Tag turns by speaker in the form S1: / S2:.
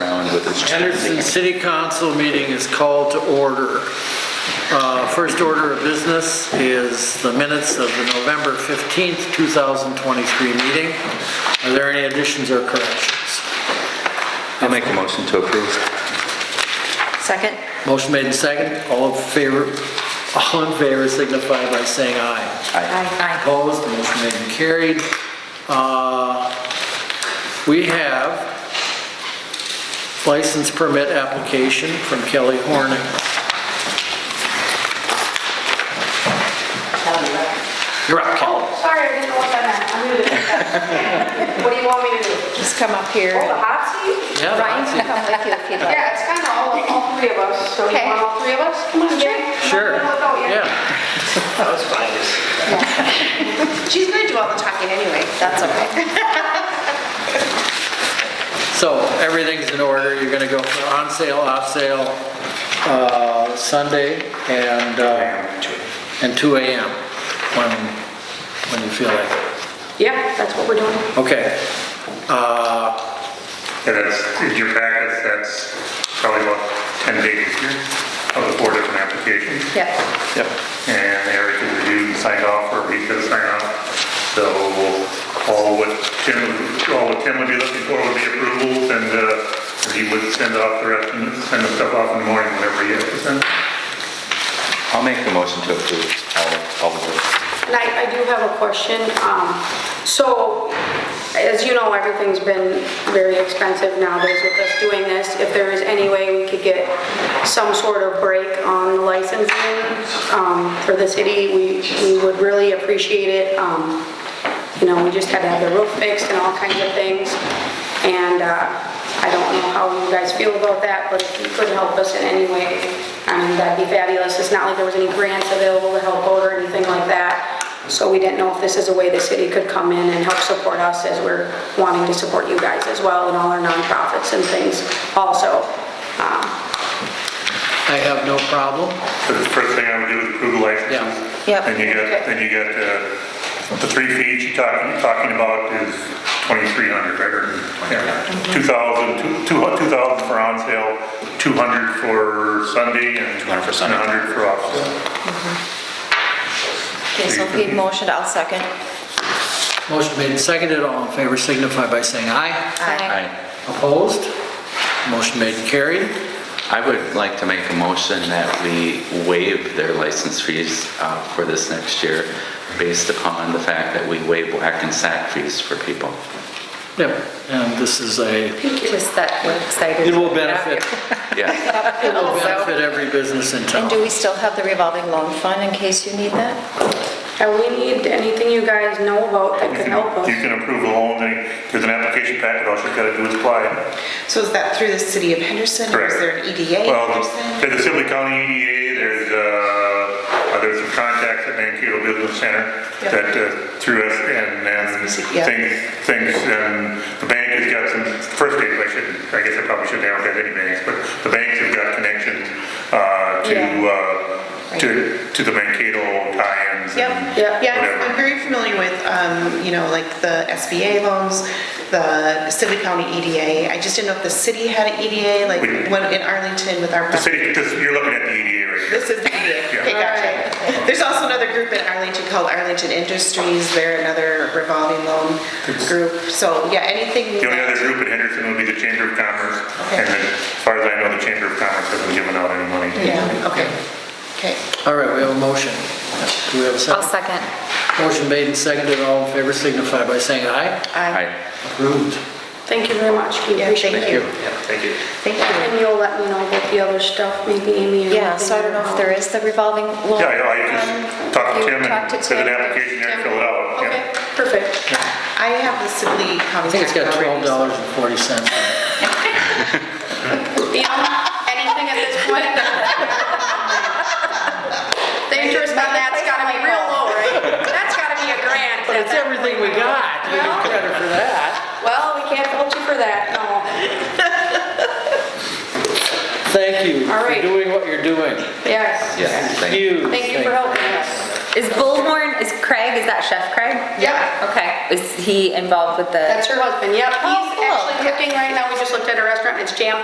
S1: with this.
S2: Henderson City Council meeting is called to order. Uh, First order of business is the minutes of the November 15th, 2023 meeting. Are there any additions or corrections?
S1: I'll make a motion to approve.
S3: Second?
S2: Motion made and second. All in favor, all in favor signify by saying aye.
S3: Aye.
S2: Opposed, motion made and carried. Uh, We have license permit application from Kelly Horning. You're up, Kelly.
S4: Oh, sorry, I didn't know what that meant. I'm new to this. What do you want me to do?
S3: Just come up here.
S4: Oh, the hot seat?
S2: Yeah,
S3: Ryan
S2: that's it.
S3: can come with you if you'd like.
S4: Yeah, it's kind of all, all three of us, so you
S3: Okay.
S4: want all three of us? Come on, Jay.
S2: Sure,
S4: I'm not gonna look out yet.
S2: yeah.
S4: She's gonna do all the talking anyway.
S3: That's okay.
S2: So everything's in order. You're gonna go for on sale, off sale, uh, Sunday and, uh, and 2 AM when, when you feel like it.
S4: Yeah, that's what we're doing.
S2: Okay. Uh,
S5: And that's, in your packets, that's probably about 10 pages here of the four different applications.
S3: Yeah.
S1: Yep.
S5: And Eric has reviewed and signed off, or he could sign off. So all what Tim, all what Tim would be looking for would be approvals, and uh, he would send off the rest, and send the stuff off in the morning, whenever he has to send.
S1: I'll make a motion to approve all, all of it.
S4: And I, I do have a question. Um, So, as you know, everything's been very expensive nowadays with us doing this. If there is any way we could get some sort of break on the licensing um, for the city, we, we would really appreciate it. Um, You know, we just had to have the roof fixed and all kinds of things. And uh, I don't know how you guys feel about that, but if you could help us in any way, I mean, that'd be fabulous. It's not like there was any grants available to help out or anything like that. So we didn't know if this is a way the city could come in and help support us as we're wanting to support you guys as well and all our nonprofits and things also. Um,
S2: I have no problem.
S5: So the first thing I would do is approve the licenses.
S3: Yeah. Yep.
S5: Then you got, then you got, uh, the three fees you're talking, talking about is 2,300, right? Or, yeah, 2,000, two- two- 2,000 for on sale, 200 for Sunday, and
S1: 200 for Sunday.
S5: 100 for off sale.
S3: Okay, so he motioned, I'll second.
S2: Motion made and seconded. All in favor signify by saying aye.
S3: Aye.
S1: Aye.
S2: Opposed? Motion made and carried.
S6: I would like to make a motion that we waive their license fees uh, for this next year based upon the fact that we waive whack and sack fees for people.
S2: Yep, and this is a,
S3: Just that we're excited.
S2: it will benefit,
S6: Yeah,
S2: it will benefit every business in
S3: And
S2: town.
S3: do we still have the revolving loan fund in case you need that?
S4: And we need anything you guys know about that could help
S5: You
S4: us.
S5: can approve the loan, then there's an application packet, all you've got to do is apply.
S7: So is that through the city of Henderson, or is
S5: Correct.
S7: there an E EDA in
S5: Well, um,
S7: Henderson?
S5: there's the Sibley County EDA, there's, uh, uh, there's some contacts at Mankato Business Center
S7: Yeah.
S5: that uh, through us and, and
S7: Yeah.
S5: things, things, and the bank has got some, first aid, I should, I guess I probably shouldn't have any banks, but the banks have got connections, uh, to,
S7: Yeah.
S5: uh, to, to the Mankato tie-ins
S7: Yep,
S5: and
S4: Yeah.
S7: yeah, I'm
S5: whatever.
S7: very familiar with, um, you know, like the SBA loans, the Sibley County EDA. I just didn't know if the city had an EDA, like
S5: We-
S7: when in Arlington with our.
S5: The city, this- you're looking at the EDA right here.
S7: This is the EDA, okay, gotcha. There's also another group in Arlington called Arlington Industries, they're another revolving loan group. So, yeah,
S5: The
S7: anything.
S5: only
S7: that-
S5: other group in Henderson would be the Chamber of Commerce,
S7: Okay.
S5: and then, as far as I know, the Chamber of Commerce hasn't given out any money.
S7: Yeah, okay, okay.
S2: All right, we have a motion. Do we have a
S3: I'll
S2: second?
S3: second.
S2: Motion made and seconded. All in favor signify by saying aye.
S7: Aye.
S6: aye.
S2: Approved.
S4: Thank you very much. We
S7: Yeah,
S4: appreciate it.
S7: thank you.
S6: Thank you.
S7: Thank you.
S4: And you'll let me know about the other stuff, maybe Amy. or
S3: Yeah, so I don't know if there
S4: anything.
S3: is the revolving loan.
S5: Yeah, yeah, I just talked to
S3: um, You
S5: Tim
S3: talked
S5: and
S3: to
S5: there's an
S3: Tim.
S5: application there and fill it out.
S4: Okay,
S5: yeah.
S4: perfect.
S7: I have the Sibley County.
S2: I think it's got
S7: tax already,
S2: twelve
S7: so-
S2: dollars and forty cents.
S4: Yeah, anything at this point? The interest on that's gotta be real low, right? That's gotta be a grand.
S2: But it's everything we got. We get credit for that.
S4: Well, we can't hold you for that, no.
S2: Thank you
S4: All
S2: for
S4: right.
S2: doing what you're doing.
S4: Yes.
S6: Yes, thank you.
S2: Huge.
S4: Thank you for helping us.
S8: Is Bullhorn, is Craig, is that Chef Craig?
S4: Yeah.
S8: Okay, is he involved with the?
S4: That's her husband, yep.
S3: Oh,
S4: He's
S3: cool.
S4: actually cooking right now, we just looked at a restaurant, it's jam